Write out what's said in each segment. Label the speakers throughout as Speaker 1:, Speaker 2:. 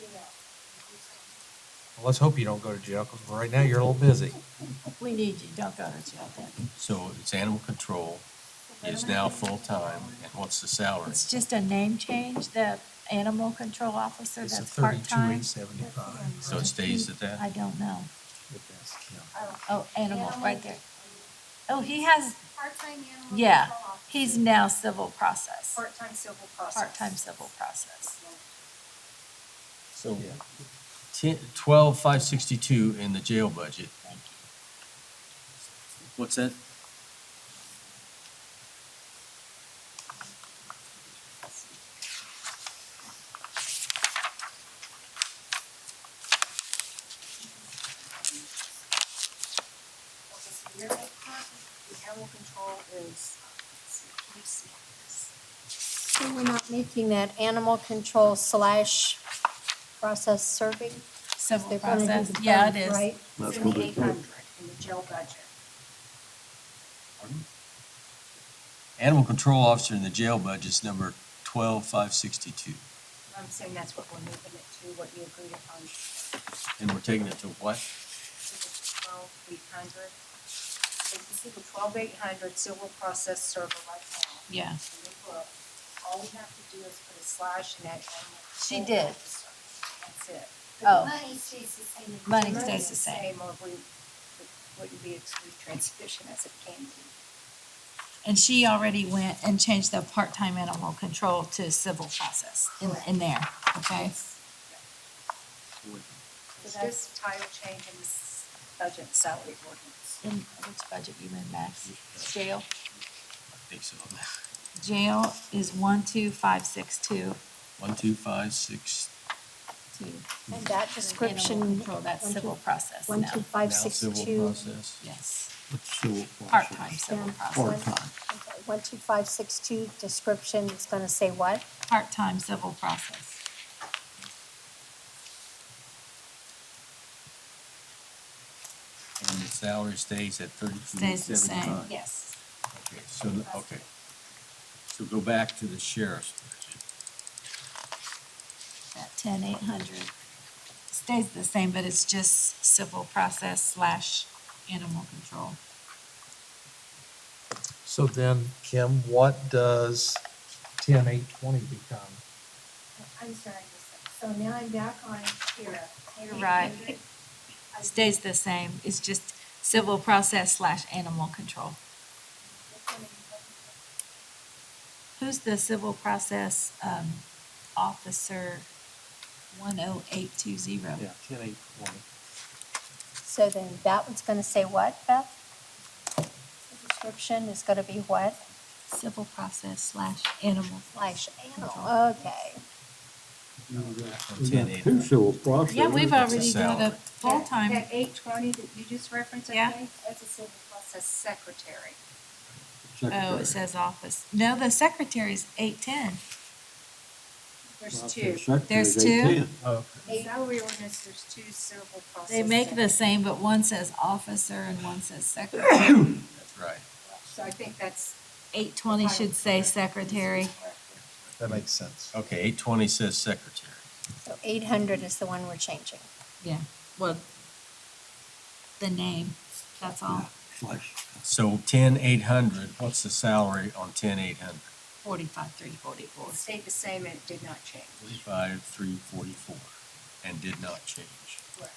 Speaker 1: you know.
Speaker 2: Well, Let's hope you don't go to jail, because right now you're a little busy.
Speaker 1: We need you, don't go to jail then.
Speaker 3: So it's animal control is now full-time, and what's the salary?
Speaker 1: It's just a name change, the animal control officer
Speaker 2: It's a
Speaker 1: that's
Speaker 2: thirty-two
Speaker 1: part-time.
Speaker 2: eight seventy-five.
Speaker 3: So it stays at that?
Speaker 1: I don't know.
Speaker 4: Oh,
Speaker 1: Oh, animal, right
Speaker 4: Animal.
Speaker 1: there. Oh, he has,
Speaker 4: part-time animal.
Speaker 1: yeah,
Speaker 4: control officer,
Speaker 1: he's now civil process,
Speaker 4: Part-time civil process.
Speaker 1: part-time civil process.
Speaker 3: So ten, twelve, five sixty-two in the jail budget.
Speaker 1: Thank you.
Speaker 3: What's that?
Speaker 4: Okay, so you're right, the Animal control is, let me see this.
Speaker 5: So we're not making that animal control slash process serving?
Speaker 1: Civil
Speaker 5: They're gonna do
Speaker 1: process,
Speaker 5: the
Speaker 1: yeah, it
Speaker 5: both,
Speaker 1: is.
Speaker 5: right?
Speaker 6: That's what they
Speaker 4: Seventy-eight
Speaker 6: do.
Speaker 4: hundred in the jail budget.
Speaker 3: Animal control officer in the jail budget's number twelve, five sixty-two,
Speaker 4: I'm saying that's what we're moving it to, what you agreed upon, to
Speaker 3: and we're taking it to what?
Speaker 4: the twelve eight hundred. So you can see the twelve eight hundred civil process server right now.
Speaker 1: Yeah,
Speaker 4: And we put- All we have to do is put a slash in that animal.
Speaker 1: She
Speaker 4: control
Speaker 1: did.
Speaker 4: officer. That's it.
Speaker 1: Oh.
Speaker 4: Money stays the same.
Speaker 1: Money stays the same.
Speaker 4: Or we, it wouldn't be a true transition as it can be.
Speaker 1: and she already went and changed the part-time animal control to civil process in, in there, okay?
Speaker 4: So that's title change in this budget and salary ordinance.
Speaker 1: In which budget you in, Max? Jail?
Speaker 3: I think so.
Speaker 1: Jail is one, two, five, six, two,
Speaker 3: One, two, five, six,
Speaker 1: two.
Speaker 5: And that
Speaker 1: Animal
Speaker 5: description,
Speaker 1: control, that's
Speaker 5: one, two-
Speaker 1: civil process
Speaker 5: one, two,
Speaker 1: now,
Speaker 3: now
Speaker 5: five, six,
Speaker 3: civil
Speaker 5: two.
Speaker 3: process.
Speaker 1: yes. Part-time
Speaker 6: Part-time.
Speaker 1: civil
Speaker 5: yeah,
Speaker 1: process,
Speaker 5: one-
Speaker 6: Part-time.
Speaker 5: okay, One, two, five, six, two, description, it's gonna say what?
Speaker 1: part-time civil process.
Speaker 3: And the salary stays at thirty-two.
Speaker 1: Stays the same,
Speaker 6: 75.
Speaker 4: Yes.
Speaker 3: Okay, so, the- okay. So go back to the sheriff's budget.
Speaker 1: that ten eight hundred stays the same, but it's just civil process slash animal control.
Speaker 2: So then, Kim, what does ten eight twenty become?
Speaker 4: I'm sorry, so now I'm back on here.
Speaker 1: You're right. Stays the same, it's just civil process slash animal control. Who's the civil process, um, officer one oh eight two zero?
Speaker 6: Yeah, ten eight twenty.
Speaker 5: So then that one's gonna say what, Beth? The Description is gonna be what?
Speaker 1: Civil process slash animal.
Speaker 5: Slash animal, okay.
Speaker 6: We
Speaker 3: Ten
Speaker 6: got
Speaker 3: eight.
Speaker 6: two civil process.
Speaker 1: Yeah, we've
Speaker 3: That's a
Speaker 1: already got a
Speaker 3: salary.
Speaker 1: full-time,
Speaker 4: That eight twenty that you just referenced, I
Speaker 1: Yeah.
Speaker 4: think, that's a civil process secretary.
Speaker 1: oh,
Speaker 6: Secretary.
Speaker 1: it says office. No, the secretary's eight ten.
Speaker 4: There's
Speaker 6: Well,
Speaker 4: two.
Speaker 6: secretary's
Speaker 1: There's two?
Speaker 6: 810.
Speaker 4: In salary ordinance, there's two civil process.
Speaker 1: They make the
Speaker 4: secretaries.
Speaker 1: same, but one says officer and one says secretary.
Speaker 3: That's right.
Speaker 4: So I think that's.
Speaker 1: Eight twenty should say secretary.
Speaker 2: That makes sense.
Speaker 3: Okay, eight twenty says secretary.
Speaker 5: So eight hundred is the one we're changing.
Speaker 1: Yeah, well, the name, that's all,
Speaker 6: Slash.
Speaker 3: So ten eight hundred, what's the salary on ten eight hundred?
Speaker 1: forty-five, three forty-four.
Speaker 4: It stayed the same and it did not change.
Speaker 3: Forty-five, three forty-four, and did not change.
Speaker 4: Correct.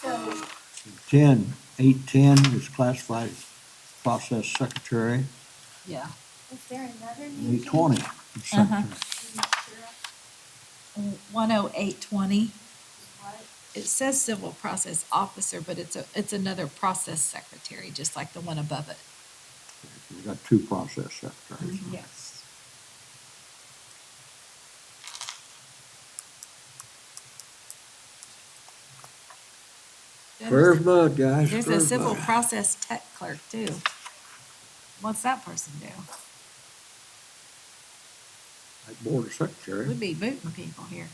Speaker 4: So,
Speaker 6: Ten, eight ten is classified as process secretary.
Speaker 1: Yeah.
Speaker 4: is there another new?
Speaker 6: Eight twenty is
Speaker 1: Uh-huh.
Speaker 6: secretary.
Speaker 1: One oh eight twenty,
Speaker 4: What?
Speaker 1: it says civil process officer, but it's a, it's another process secretary, just like the one above it.
Speaker 6: We got two process secretaries.
Speaker 1: Mm-hmm.
Speaker 4: Yes.
Speaker 6: Fair as mud, guys.
Speaker 1: There's
Speaker 6: fair
Speaker 1: a
Speaker 6: as
Speaker 1: civil
Speaker 6: mud.
Speaker 1: process tech clerk too. What's that person do?
Speaker 6: Like Board of Secretary.
Speaker 1: We'd be booting people here.